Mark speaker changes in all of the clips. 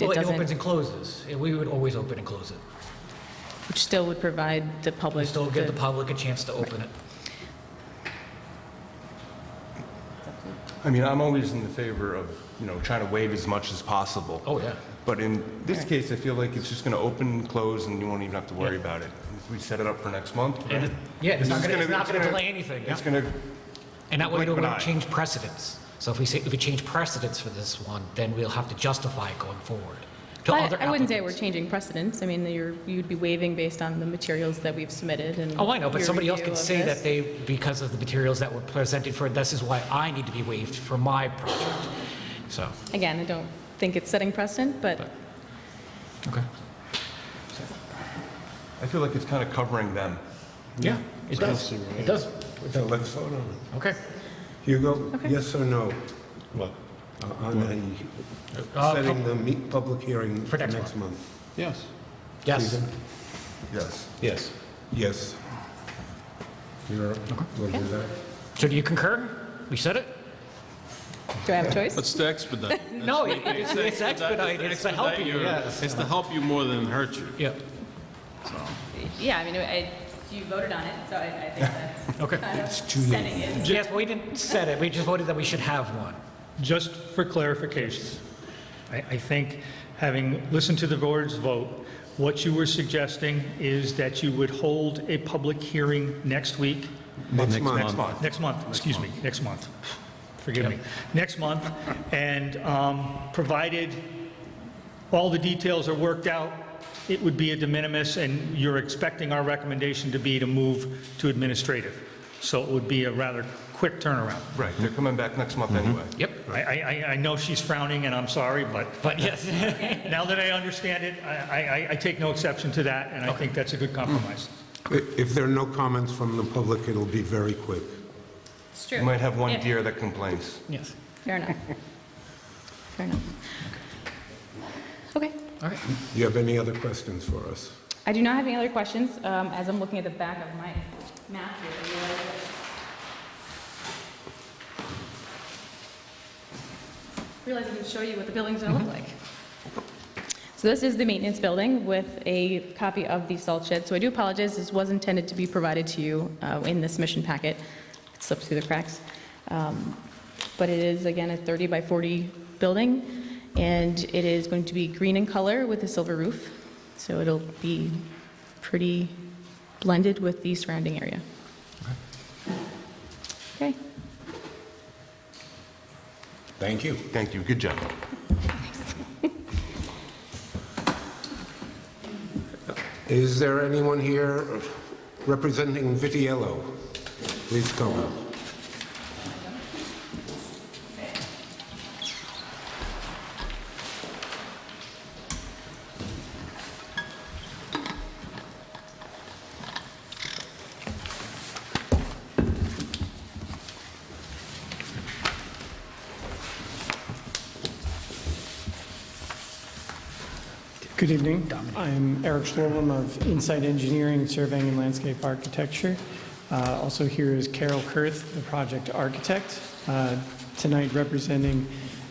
Speaker 1: It
Speaker 2: Well, it
Speaker 1: doesn't,
Speaker 2: opens and closes. and We would always open and close it.
Speaker 1: which still would provide the
Speaker 2: We
Speaker 1: public.
Speaker 2: still give the public a chance to open it.
Speaker 3: I mean, I'm always in the favor of, you know, trying to waive as much as possible.
Speaker 2: Oh, yeah.
Speaker 3: But in this case, I feel like it's just going to open and close, and you won't even have to worry about it. If we set it up for next month,
Speaker 2: And
Speaker 3: right?
Speaker 2: it- yeah, it's not
Speaker 3: just
Speaker 2: gonna- it's not gonna
Speaker 3: gonna-
Speaker 2: delay anything,
Speaker 3: It's
Speaker 2: yeah.
Speaker 3: going to,
Speaker 2: And that way,
Speaker 3: Blink
Speaker 2: we
Speaker 3: of an
Speaker 2: won't
Speaker 3: eye.
Speaker 2: change precedents. So if we say, if we change precedents for this one, then we'll have to justify it going forward to
Speaker 1: But
Speaker 2: other
Speaker 1: I wouldn't say we're
Speaker 2: applicants.
Speaker 1: changing precedents. I mean, you're, you'd be waiving based on the materials that we've submitted and.
Speaker 2: Oh, I know, but
Speaker 1: your
Speaker 2: somebody else
Speaker 1: review
Speaker 2: could
Speaker 1: of
Speaker 2: say
Speaker 1: this.
Speaker 2: that they, because of the materials that were presented for, this is why I need to be waived for my project. So,
Speaker 1: Again, I don't think it's setting precedent, but
Speaker 2: okay.
Speaker 3: I feel like it's kind of covering them.
Speaker 2: Yeah, it does. It does.
Speaker 4: So let's vote on it.
Speaker 2: Okay.
Speaker 4: Hugo, yes or no?
Speaker 5: What?
Speaker 4: uh, On the-
Speaker 2: Uh,
Speaker 4: setting the me- public hearing
Speaker 2: For
Speaker 4: for
Speaker 2: next
Speaker 4: next month?
Speaker 5: Yes.
Speaker 2: Yes.
Speaker 3: Yes.
Speaker 5: Yes.
Speaker 4: Yes. You're, we'll do that.
Speaker 2: So do you concur? We said it?
Speaker 1: do I have a choice?
Speaker 5: Let's to expedite.
Speaker 2: No, it- it's it's expedited. It's to help you, yes.
Speaker 5: It's to help you more than hurt you.
Speaker 2: Yeah,
Speaker 1: Yeah, I mean, I, you voted on it, so I, I think that's
Speaker 2: okay.
Speaker 1: setting it.
Speaker 2: Yes, but we didn't set it, we just voted that we should have one.
Speaker 6: Just for clarification, I, I think, having listened to the board's vote, what you were suggesting is that you would hold a public hearing next week,
Speaker 4: Next
Speaker 5: month.
Speaker 4: month.
Speaker 6: next month, excuse me, next month. Forgive me. Next month, and um, provided all the details are worked out, it would be a de minimis, and you're expecting our recommendation to be to move to administrative. So it would be a rather quick turnaround.
Speaker 3: Right, they're coming back next month anyway.
Speaker 2: Yep,
Speaker 6: I, I, I- I know she's frowning, and I'm sorry, but
Speaker 2: but yes,
Speaker 6: now that I understand it, I, I, I take no exception to that, and I think that's a good compromise.
Speaker 4: I- If there are no comments from the public, it'll be very quick.
Speaker 1: It's true.
Speaker 3: You might have one
Speaker 1: Yeah.
Speaker 3: deer that complains.
Speaker 2: yes.
Speaker 1: Fair enough. Fair enough. Okay.
Speaker 2: All right,
Speaker 4: Do you have any other questions for us?
Speaker 1: I do not have any other questions. Um, As I'm looking at the back of my map here, I realize that- realize I can show you what the building's going to look like. So this is the maintenance building with a copy of the salt shed. So I do apologize, this was intended to be provided to you uh, in this mission packet. It Slipped through the cracks. Um, But it is, again, a 30 by 40 building, and it is going to be green in color with a silver roof. So it'll be pretty blended with the surrounding area. Okay,
Speaker 4: Thank you.
Speaker 3: Thank you, good job.
Speaker 4: Is there anyone here representing Vitiello? Please come up.
Speaker 7: Good evening. I'm Eric Schlorblum of Insight Engineering, Surveying and Landscape Architecture. Uh, Also here is Carol Kurth, the project architect, uh, tonight representing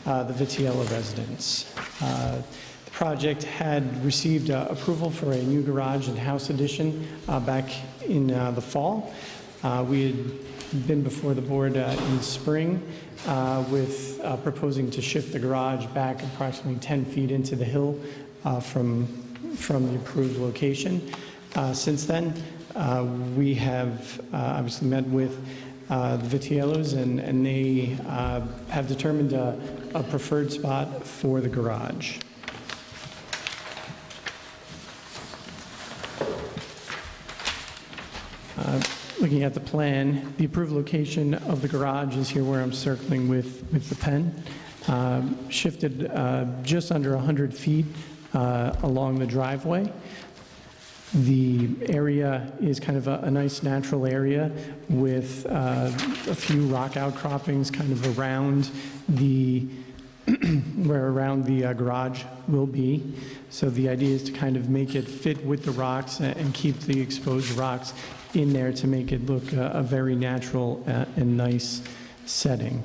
Speaker 7: uh, the Vitiello residents. Uh, The project had received uh, approval for a new garage and house addition uh, back in uh, the fall. Uh, We had been before the board uh, in spring uh, with uh, proposing to shift the garage back approximately 10 feet into the hill uh, from, from the approved location. Uh, Since then, uh, we have uh, obviously met with uh, the Vitiellos, and, and they uh, have determined a a preferred spot for the garage. Looking at the plan, the approved location of the garage is here where I'm circling with, with the pen, Um, shifted uh, just under 100 feet uh, along the driveway. The area is kind of a a nice natural area with uh, a few rock outcroppings kind of around the, where around the uh, garage will be. So the idea is to kind of make it fit with the rocks a- and keep the exposed rocks in there to make it look uh, a very natural uh, and nice setting.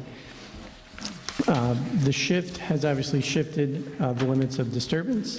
Speaker 7: Uh, The shift has obviously shifted uh, the limits of disturbance.